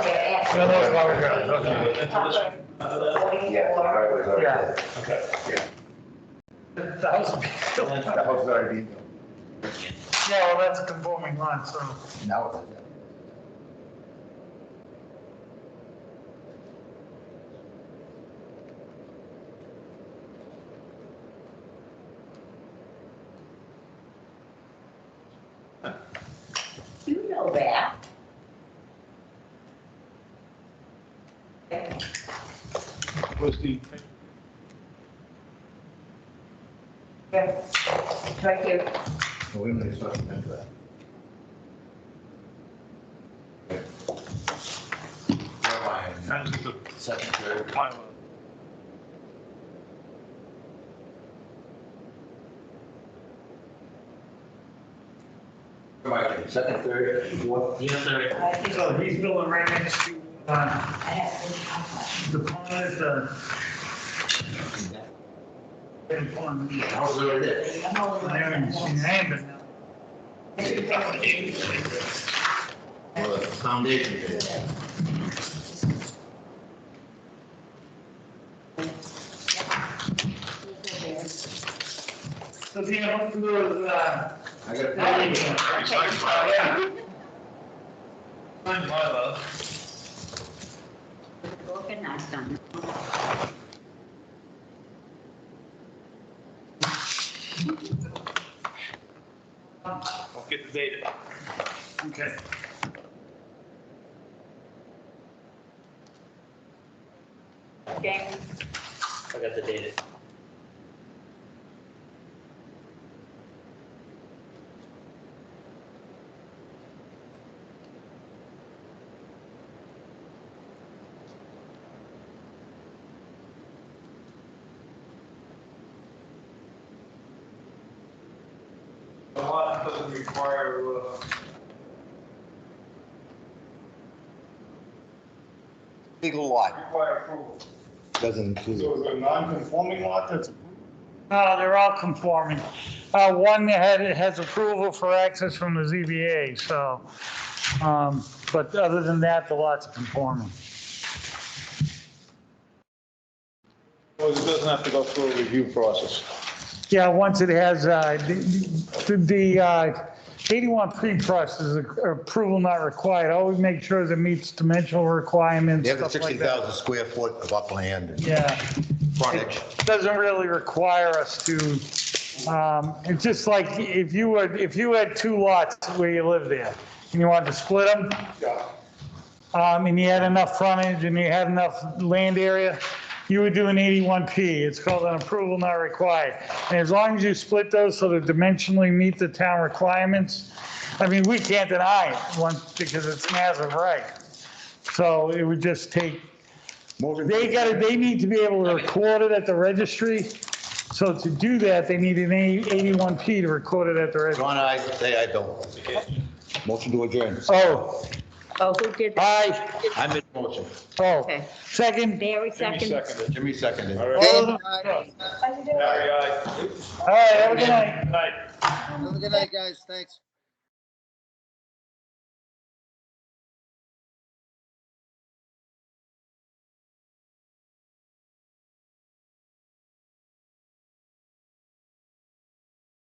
No, that was long ago, okay. Until this one, after that? Yeah, the highway is already- Yeah. Okay. The thousand feet. The house is already built. Yeah, well, that's a conforming lot, so. Now it's. You know that. was the, Yeah, right here. Well, We may start to do that. Where am that's the I? Second, third. pile Where am I? Second, third, fourth. Yes, sir. I think So he's building right next to, uh, I have the pond uh, is the, big pond. The house is already there. to. I'm all I haven't seen over. that, but now. Well, the foundation is there. So the other two is, uh, I got. building. a- Yeah. Fine, my love. Broken, I done. I'll get the data. Okay. James, I got the data. The lot doesn't require, uh, legal lot require approval. doesn't include. So it's a non-conforming lot that's approved? No, they're all conforming. Uh, One had, has approval for access from the ZBA, so, um, but other than that, the lot's conforming. Well, it doesn't have to go through a review process. Yeah, once it has, uh, the- the the, uh, 81 pre-trust is approval not required. Always make sure that meets dimensional requirements, They have the stuff like that. 60,000 square foot of upland and Yeah. frontage. doesn't really require us to, um, it's just like if you were, if you had two lots where you live there and you wanted to split them. Um, and you had enough frontage and you had enough land area, you would do an 81P. It's called an approval not required. And as long as you split those so they dimensionally meet the town requirements, I mean, we can't deny it once, because it's massive right. So it would just take Moving- they gotta, they need to be able to record it at the registry. So to do that, they need an eighty-one P to record it at the registry. John, I say I don't. Motion to adjourn. Oh, oh, who did that? aye, I made the motion. oh, Okay. second, Barry Jimmy second. seconded. Jimmy seconded. All all right. of them. Larry, aye. All right, have a good night. Aye. Have a good night, guys. Thanks.